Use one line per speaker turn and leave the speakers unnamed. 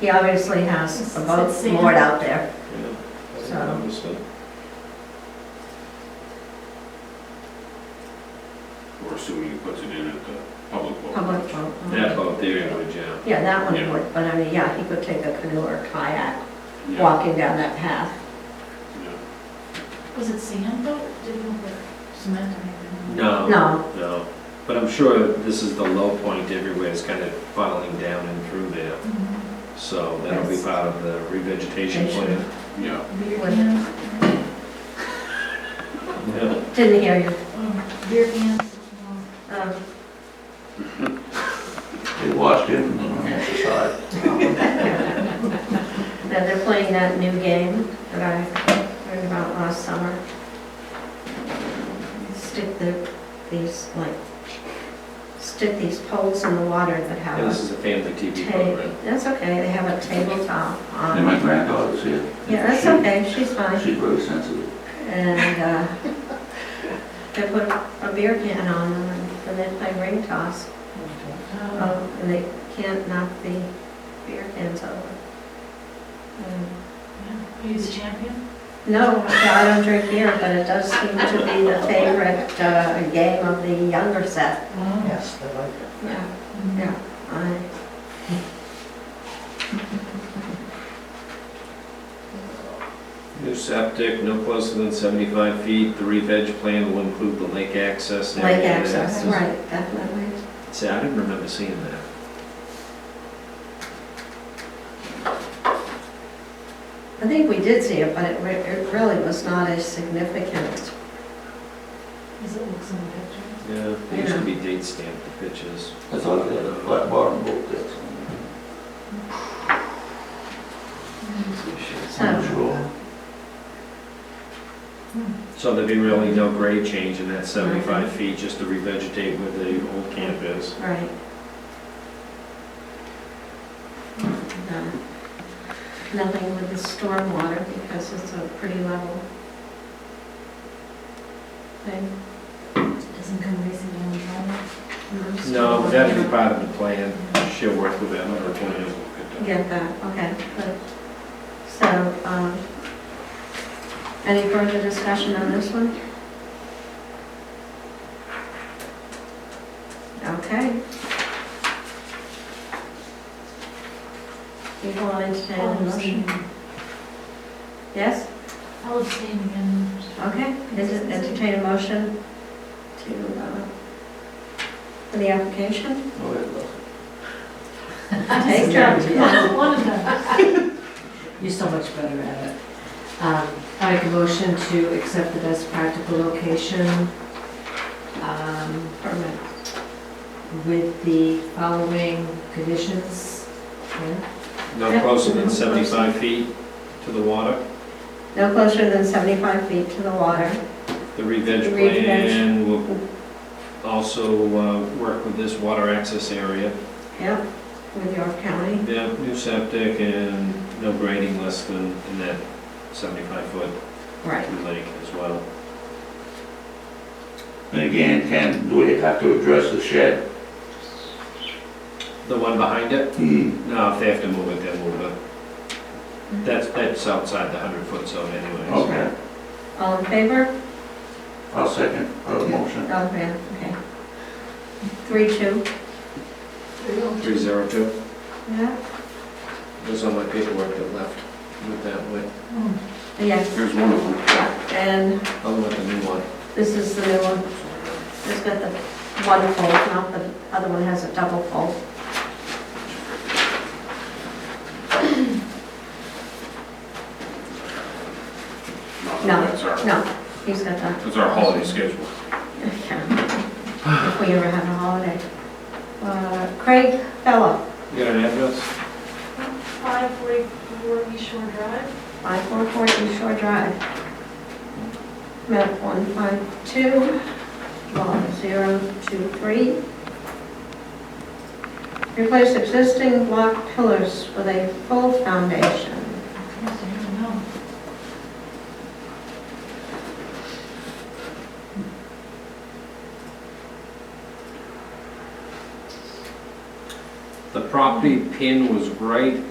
He obviously has a boat moored out there.
yeah. I
So-
noticed it.
We're assuming he puts it in at the public boat.
Public boat. okay.
That boat there would jam.
Yeah, that one
Yeah.
would, but I mean, yeah, he could take a canoe or kayak
Yeah,
walking down that path.
yeah.
Was it sand though? Didn't look like cement or anything?
No.
No,
No, but I'm sure this is the low point everywhere, it's kind of funneling down and through there.
Mhm.
So that'll be
Yes.
part of the revegetation plan.
Yeah,
Beer
What?
cans?
Yeah.
didn't hear you.
Oh, Beer cans?
Um,
They watched it on the side.
Now, they're playing that new game that I heard about last summer. Stick the, these, like, stick these poles in the water that
And this
have
is a family
a
TV
table.
program.
That's okay, they have a tabletop
And my
on.
granddaughter's here.
Yeah, that's
She-
okay, she's fine.
She's really sensitive.
And uh, they put a beer can on them and- and then play ring toss.
Oh,
Um, And they can't knock the beer cans over. And
yeah. Are you the champion?
No, I don't drink beer, but it does seem to be the favorite uh, game of the younger set.
Wow.
Yes, they like it.
Yeah.
Mhm.
Yeah. I-
New septic, no closer than 75 feet. The reveg plan will include the lake access. and
Lake
everything.
access, right, definitely.
See, I didn't remember seeing that.
I think we did see it, but it re- it really was not as significant.
Is it looks in the pictures?
Yeah, they used to be date stamped the pictures.
I thought they had a flat bottom boat there. so
Mm-hmm.
Oh.
I'm not
So,
sure.
So there'd be really no grade change in that 75 feet, just to revegetate where the old camp is.
right. No. Um, Nothing with the stormwater because it's a pretty level thing.
Doesn't come racing down the driveway?
No, that'd be part of the plan. She'll work with that on her plan.
Get that, okay, good. So, um, any further discussion on this one? Okay. You want to entertain
I'll
a motion?
abstain.
Yes,
I'll abstain again.
okay, Ent- entertain a motion to, uh, for the application?
Go ahead, Russell.
Take it.
One of them.
You're so much better at it. Um, I make a motion to accept the best practical location um,
Permit.
with the following conditions. Yeah?
No closer than 75 feet to the water.
No closer than 75 feet to the water.
The revenge
Reveg.
plan will also uh, work with this water access area.
Yep, with York County.
Yeah, new septic and no grading less than in that 75 foot
Right.
lake as well.
And again, Ken, do we have to address the shed?
The one behind it?
Hmm,
No, if they have to move it, they'll move it. That's, that's outside the 100 foot zone anyways.
okay.
All in favor?
I'll second the motion.
All in favor, okay. Three, two.
Three zero two,
Yeah.
was on my paperwork that left with that way,
Hmm.
Yes,
There's one of them.
and
I'll let the new one.
this is the new one. It's got the one fold, not the other one has a double fold. No,
That's our,
No, he's got that.
that's our holiday schedule.
Yeah. If we ever have a holiday. Uh, Craig Fellow,
You got an address?
544 East Shore Drive.
544 East Shore Drive. Map 152, lot 023. Replace existing block pillars with a full foundation.
Yes, I don't know.
The property pin was right